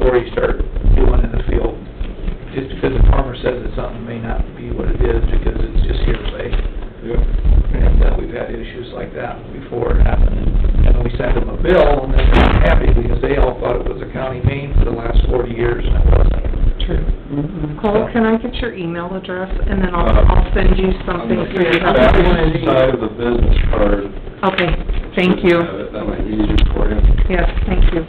already start doing in the field. Just because the farmer says that something may not be what it is, because it's just hearsay. And uh, we've had issues like that before happen. And then we send them a bill, and they're not happy because they all thought it was a county main for the last forty years, and it wasn't. True. Cole, can I get your email address, and then I'll, Uh, I'll send you On something the for your back side of the business card. Okay, thank you. have it. That might be easier for you. Yes, thank you.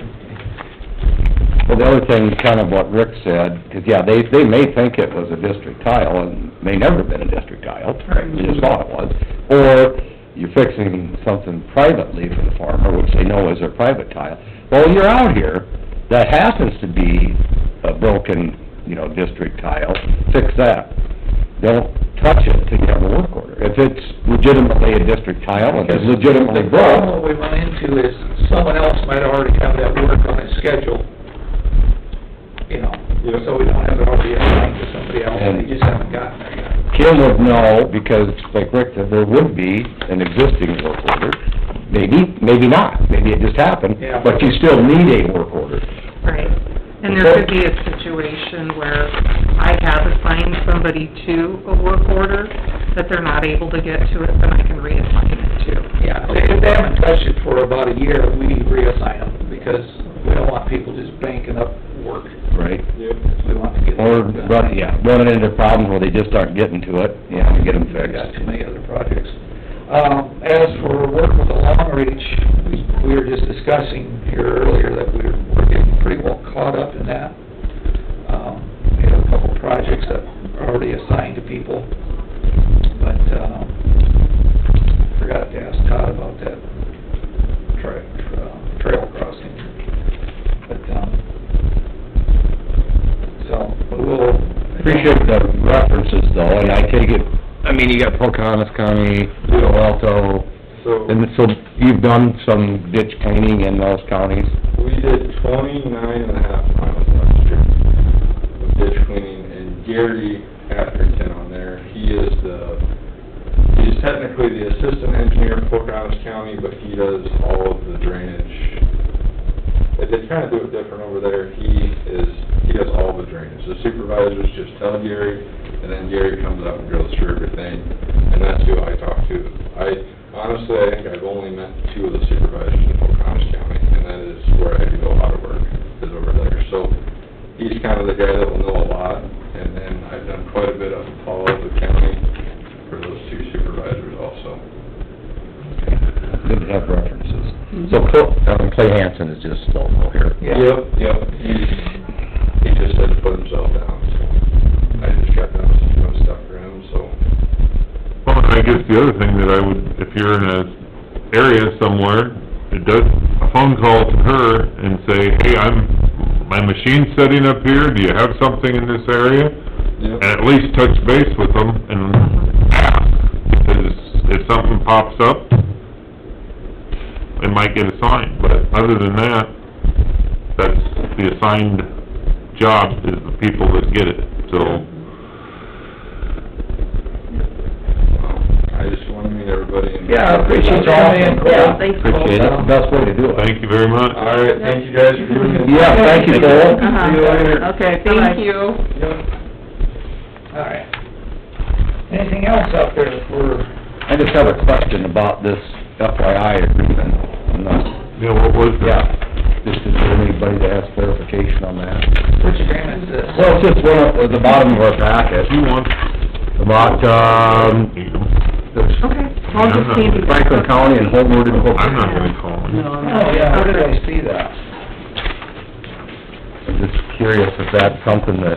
Well, the other thing, kind of what Rick said, 'cause yeah, they, they may think it was a district tile, and may never have been a district tile. Right. You just thought it was. Or you're fixing something privately for the farmer, which they know is a private tile. Well, when you're out here, that happens to be a broken, you know, district tile, fix that. Don't touch it till you have a work order. If it's legitimately a district tile, and it's legitimately The broke, problem we run into is someone else might already have that work on his schedule, you know, Yeah. so we don't have it already assigned to somebody else, And- they just haven't gotten there yet. Kim would know, because like Rick said, there would be an existing work order. Maybe, maybe not, maybe it just happened, Yeah. but you still need a work order. Right, and there could be a situation where I have assigned somebody to a work order, that they're not able to get to it, then I can reassign it to. Yeah, if if they haven't touched it for about a year, we reassign them, because we don't want people just banking up work. Right. Yeah. We want to get. Or, work done. run yeah, running into problems where they just aren't getting to it, you know, get them We've got fixed. too many other projects. Um, as for work with the long reach, we, we were just discussing here earlier that we're, we're getting pretty well caught up in that. Um, we have a couple projects that are already assigned to people, but, um, forgot to ask Todd about that tra- uh, trail crossing. But, um, so, but we'll. Appreciate the references though, and I take it, I mean, you got Pocahontas County, Palo Alto, So, and so you've done some ditch cleaning in those counties? we did twenty-nine and a half miles last year of ditch cleaning, and Gary Atherton on there, he is the, he's technically the assistant engineer for Pocahontas County, but he does all of the drainage. They, they kinda do it different over there, he is, he does all the drainage, the supervisors just tell Gary, and then Gary comes up and goes through everything, and that's who I talk to. I, honestly, I think I've only met two of the supervisors in Pocahontas County, and that is where I do a lot of work, is over there. So he's kind of the guy that will know a lot, and then I've done quite a bit of follow-up with county for those two supervisors also. Good to have references. So Cl- um, Clay Hansen is just local here. Yeah. Yep, yep, he, he just had to put himself down, so I just got down some some stuff for him, so. Well, and I guess the other thing that I would, if you're in a area somewhere, it does, a phone call to her and say, hey, I'm, my machine's setting up here, do you have something in this area? Yep. And at least touch base with them and ask, because if something pops up, it might get assigned, but other than that, that's the assigned job is the people that get it, so. um, I just wanted to meet everybody and. Yeah, I appreciate you coming in, Cole. Yeah, Appreciate it, best way to do it. Thank you very much. All right, thank you guys for doing this. Yeah, thank you, Cole. Uh-huh. See you later. Okay, Bye-bye. thank you. Yep. All right. Anything else out there for, I just have a question about this FYI agreement, unless, Yeah, what was that? yeah, just is there anybody that has clarification on that? which agreement is this? Well, it's just one of, at the bottom of our packet, If you want. about, um, there's Okay, I'll just need to... Franklin County and Homeward and Hooper. I'm not gonna call him. Oh, yeah, how did I see that? I'm just curious if that's something that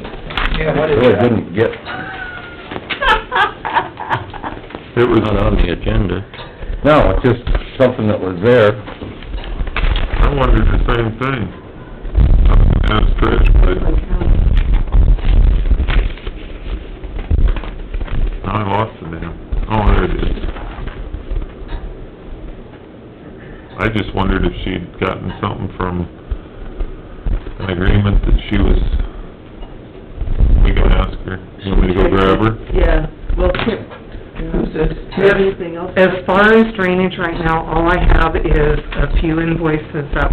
Yeah, what is really that? didn't get It was, the agenda. No, it's just something that was there. I wondered the same thing. I was gonna ask Trish, but I lost it now. Oh, there it is. I just wondered if she'd gotten something from an agreement that she was, we can ask her. You want me to go grab her? Yeah, well, Who's do this? you have anything else? As far as drainage right now, all I have is a few invoices that